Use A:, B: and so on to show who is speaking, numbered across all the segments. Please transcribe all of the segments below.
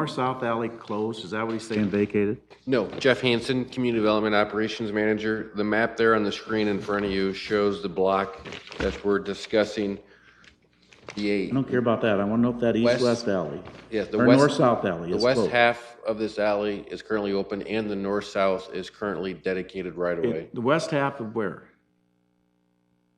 A: north-south alley closed, is that what he's saying, vacated?
B: No, Jeff Hansen, Community Development Operations Manager. The map there on the screen in front of you shows the block that we're discussing. The
A: I
B: eight,
A: don't care about that, I want to know if that
B: West-
A: east-west alley,
B: yes, the
A: or
B: west,
A: north-south alley
B: the
A: is
B: west
A: closed.
B: half of this alley is currently open and the north-south is currently dedicated right away.
A: It- The west half of where?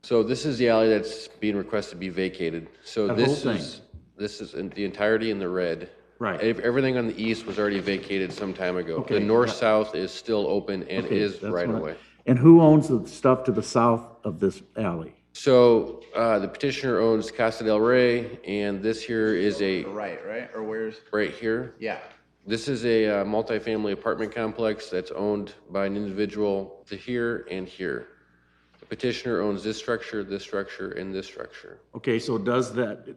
B: So this is the alley that's being requested to be vacated. So
A: That
B: this
A: whole thing.
B: is, this is in- the entirety in the red.
A: Right,
B: Ev- Everything on the east was already vacated some time ago.
A: Okay,
B: The
A: yeah.
B: north-south is still open and
A: Okay,
B: is
A: that's
B: right
A: what I-
B: away.
A: and who owns the stuff to the south of this alley?
B: So uh, the petitioner owns Casa del Rey, and this here is a,
C: Right, right, or where's,
B: right here,
C: yeah.
B: this is a uh, multifamily apartment complex that's owned by an individual to here and here. The petitioner owns this structure, this structure, and this structure.
A: Okay, so does that,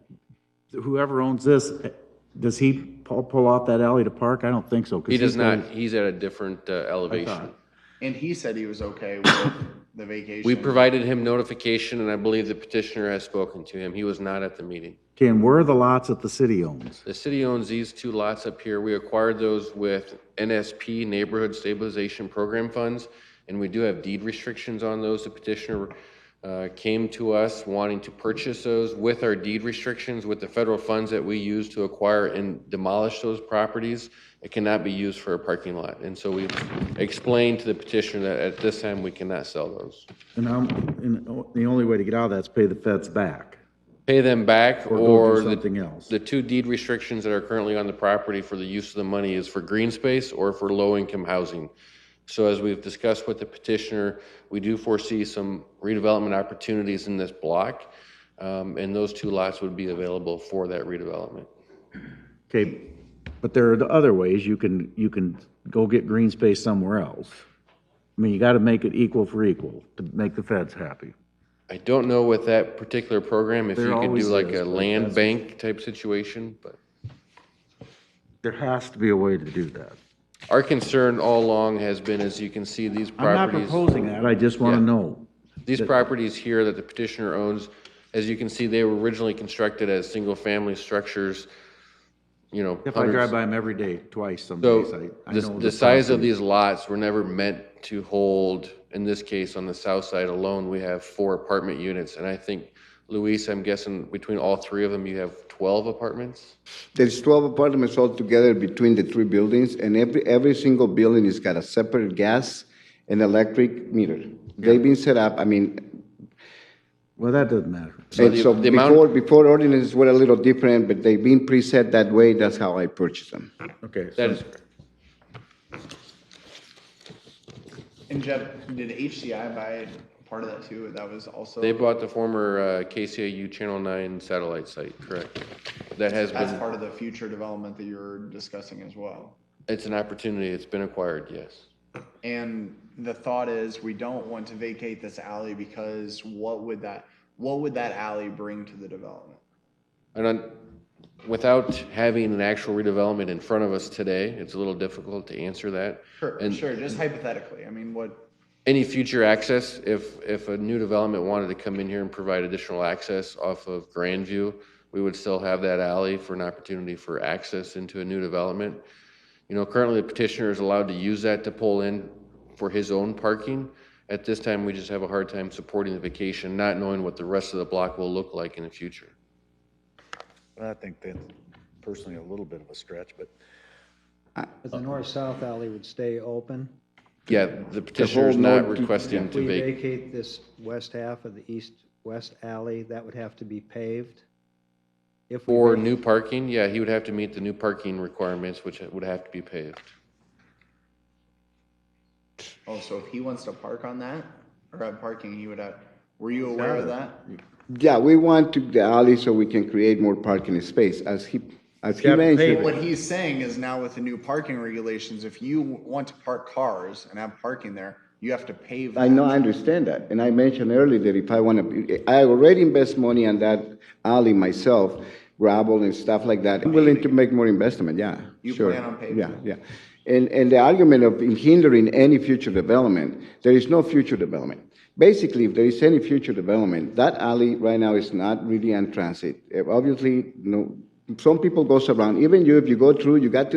A: whoever owns this, does he pull, pull off that alley to park? I don't think so. 'cause
B: He does
A: he's got-
B: not, he's at a different uh, elevation.
C: And he said he was okay with the vacation.
B: We provided him notification, and I believe the petitioner has spoken to him. He was not at the meeting.
A: Okay, and where are the lots that the city owns?
B: The city owns these two lots up here. We acquired those with NSP Neighborhood Stabilization Program funds, and we do have deed restrictions on those. The petitioner uh, came to us wanting to purchase those with our deed restrictions, with the federal funds that we use to acquire and demolish those properties. It cannot be used for a parking lot. And so we explained to the petitioner that at this time, we cannot sell those.
A: And I'm, and o- the only way to get out of that's pay the feds back
B: Pay them back
A: or go
B: or
A: do
B: the
A: something else.
B: The two deed restrictions that are currently on the property for the use of the money is for green space or for low-income housing. So as we've discussed with the petitioner, we do foresee some redevelopment opportunities in this block, um, and those two lots would be available for that redevelopment.
A: Okay, but there are the other ways. You can, you can go get green space somewhere else. I mean, you gotta make it equal for equal to make the feds happy.
B: I don't know with that particular program, if
A: There
B: you could
A: always
B: do like
A: is,
B: a
A: but
B: land
A: that's-
B: bank type situation, but
A: There has to be a way to do that.
B: our concern all along has been, as you can see, these
A: I'm not
B: properties.
A: proposing that, I just wanna
B: Yeah.
A: know.
B: These properties here that the petitioner owns, as you can see, they were originally constructed as single-family structures, you know.
A: If I drive
B: hundreds-
A: by them every day, twice some days,
B: So
A: I, I
B: the,
A: know.
B: the size of these lots were never meant to hold, in this case, on the south side alone, we have four apartment units. And I think, Luis, I'm guessing between all three of them, you have 12 apartments?
D: There's 12 apartments altogether between the three buildings, and every, every single building has got a separate gas and electric meter. They've been set up, I mean,
A: Well, that doesn't matter.
D: and
B: the-
D: so
B: the amount-
D: before, before ordinances were a little different, but they've been preset that way, that's how I purchased them.
A: Okay.
B: That
A: so-
B: is correct.
C: And Jeff, did HCI buy part of that too? That was also,
B: They bought the former uh, KCAU Channel 9 satellite site, correct? That has
C: that's
B: been,
C: part of the future development that you're discussing as well.
B: it's an opportunity, it's been acquired, yes.
C: And the thought is, we don't want to vacate this alley because what would that, what would that alley bring to the development?
B: And on, without having an actual redevelopment in front of us today, it's a little difficult to answer that.
C: Sure,
B: And-
C: sure, just hypothetically, I mean, what,
B: Any future access, if, if a new development wanted to come in here and provide additional access off of Grandview, we would still have that alley for an opportunity for access into a new development. You know, currently the petitioner is allowed to use that to pull in for his own parking. At this time, we just have a hard time supporting the vacation, not knowing what the rest of the block will look like in the future.
E: I think that's personally a little bit of a stretch, but
F: But the north-south alley would stay open.
B: Yeah, the petitioner is not
D: north-
B: requesting
F: If
B: to
F: we
B: vacate.
F: vacate this west half of the east-west alley, that would have to be paved. If we
B: For
F: vac-
B: new parking, yeah, he would have to meet the new parking requirements, which would have to be paved.
C: oh, so if he wants to park on that, or have parking, he would have, were you aware of that?
D: Yeah, we want to, the alley so we can create more parking space, as he, as he
A: Yeah, pave
D: mentioned.
C: What he's saying is now with the new parking regulations, if you want to park cars and have parking there, you have to pave that.
D: I know, I understand that, and I mentioned earlier that if I want to, I already invest money on that alley myself, gravel and stuff like that. I'm willing to make more investment, yeah,
C: You
D: sure.
C: plan on paving
D: Yeah, yeah. And, and the argument of hindering any future development, there is no future development. Basically, if there is any future development, that alley right now is not really on transit. Eh, Obviously, no, some people goes around, even you, if you go through, you got to